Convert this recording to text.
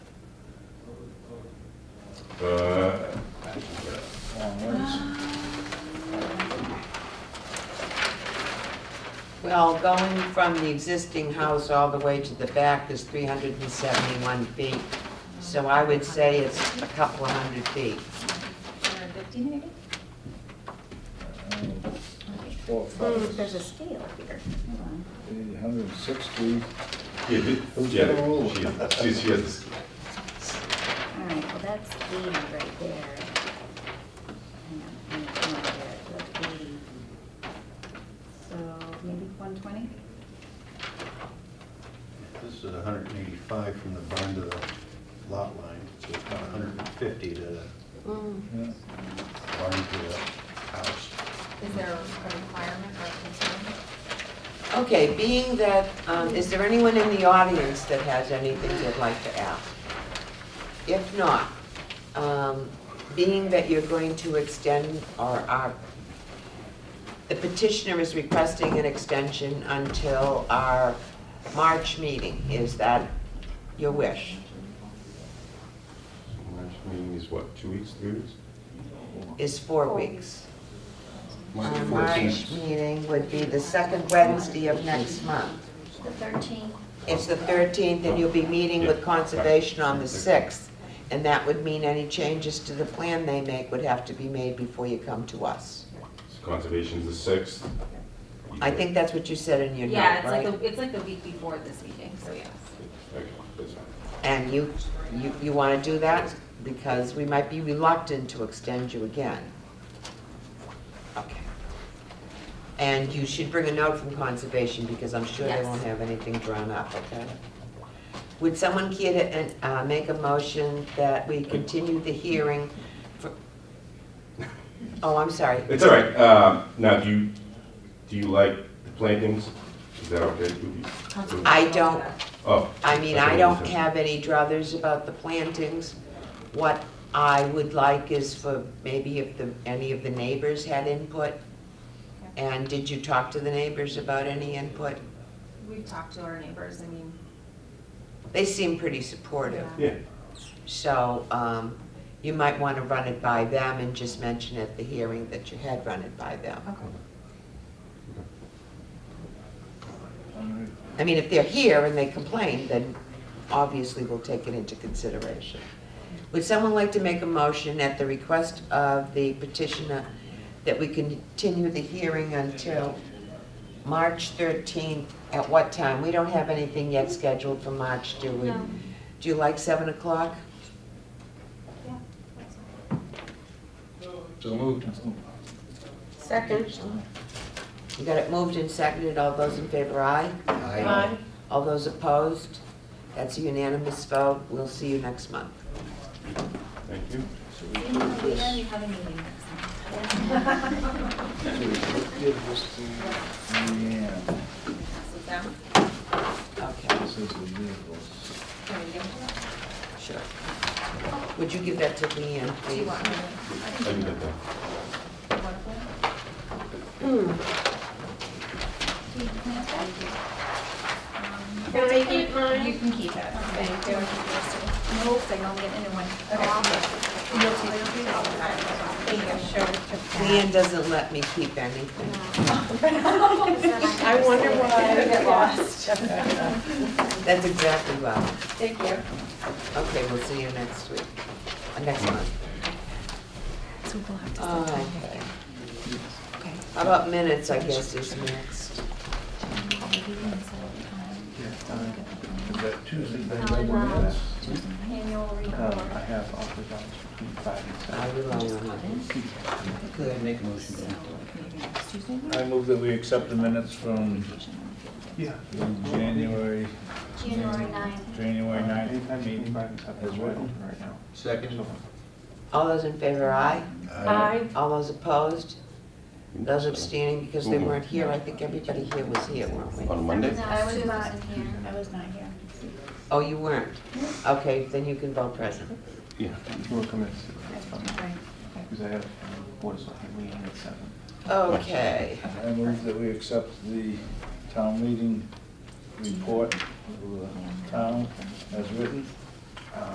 Uh, onwards. Well, going from the existing house all the way to the back is 371 feet. So I would say it's a couple of hundred feet. 150 maybe? Um, there's Four, Oh, five, there's a six, scale here. Hold on. eight hundred and sixty. yeah, Who's yeah, gonna rule? she- she- she has- All right, well, that's 80 right there. Hang on, hang on, hang on there, that's 80. So maybe 120? This is hundred and eighty-five from the barn to the lot line, so it's about hundred and fifty to the Yeah. barn to the house. Is there a requirement like continuing? Okay, being that, um, is there anyone in the audience that has anything they'd like to ask? If not, um, being that you're going to extend or are, the petitioner is requesting an extension until our March meeting, is that your wish? March meeting is what, two weeks, three weeks? Is four weeks? March Our March 14th. meeting would be the second Wednesday of next month. The 13th. It's the 13th, and you'll be meeting with Conservation on the 6th, and that would mean any changes to the plan they make would have to be made before you come to us. So Conservation's the sixth. I think that's what you said in your Yeah, note, it's like, right? the- it's like the week before this meeting, so yes. Okay, that's fine. And you, you, you want to do that? Because we might be reluctant to extend you again. Okay. And you should bring a note from Conservation, because I'm sure they Yes. won't have anything drawn up, okay? Would someone care to uh, make a motion that we continue the hearing for... Oh, I'm sorry. It's all right. Um, Now, do you, do you like the plantings? Is that okay with you? I don't, Oh. Uh, I mean, I don't have any druthers about the plantings. What I would like is for maybe if the, any of the neighbors had input. And did you talk to the neighbors about any input? We've talked to our neighbors, I mean, They seem pretty supportive. yeah. Yeah, So um, you might want to run it by them and just mention at the hearing that you had run it by them. Okay. All right. I mean, if they're here and they complain, then obviously we'll take it into consideration. Would someone like to make a motion at the request of the petitioner that we continue the hearing until March 13th? At what time? We don't have anything yet scheduled for March, do we? No. Do you like 7 o'clock? Yeah. So moved. Second. We got it moved and seconded. All those in favor, aye? Aye. All those opposed? That's a unanimous vote. We'll see you next month. thank you. You know, we already have a meeting next time. So we give this to Leanne. Pass it down. Okay, This is the vehicles. Can we give it to sure. Would you give that to Leanne, them? Do you please? want me to? I can get that. you want them? Hmm. Do you plant that? Can I keep You mine? can keep it. Thank you. Nope, I don't get into one. Okay. You'll take it all the time. Thank you. Leanne doesn't let me keep anything. I wonder why I get lost. That's exactly right. Thank you. Okay, we'll see you next week, uh, next month. So we'll have to set time How about minutes, I guess, is next. Is that Tuesday, then Alan, we'll do uh, this? Annual Uh, report. I have offered that between five and I seven. rely on others. I move that we accept the minutes from from January, January 9th. January ninth, I mean, as written right now. Second. All those in favor, aye? Aye. All those opposed? Those abstaining because they weren't here, I think everybody here was here, weren't we? On Monday? No, I was Sue not wasn't here. I was not here. Oh, you weren't? Okay, then you can vote present. Yeah. We'll come in, Right. because I have board of selectmen meeting at seven. Okay. I move that we accept the town meeting report of the town as written.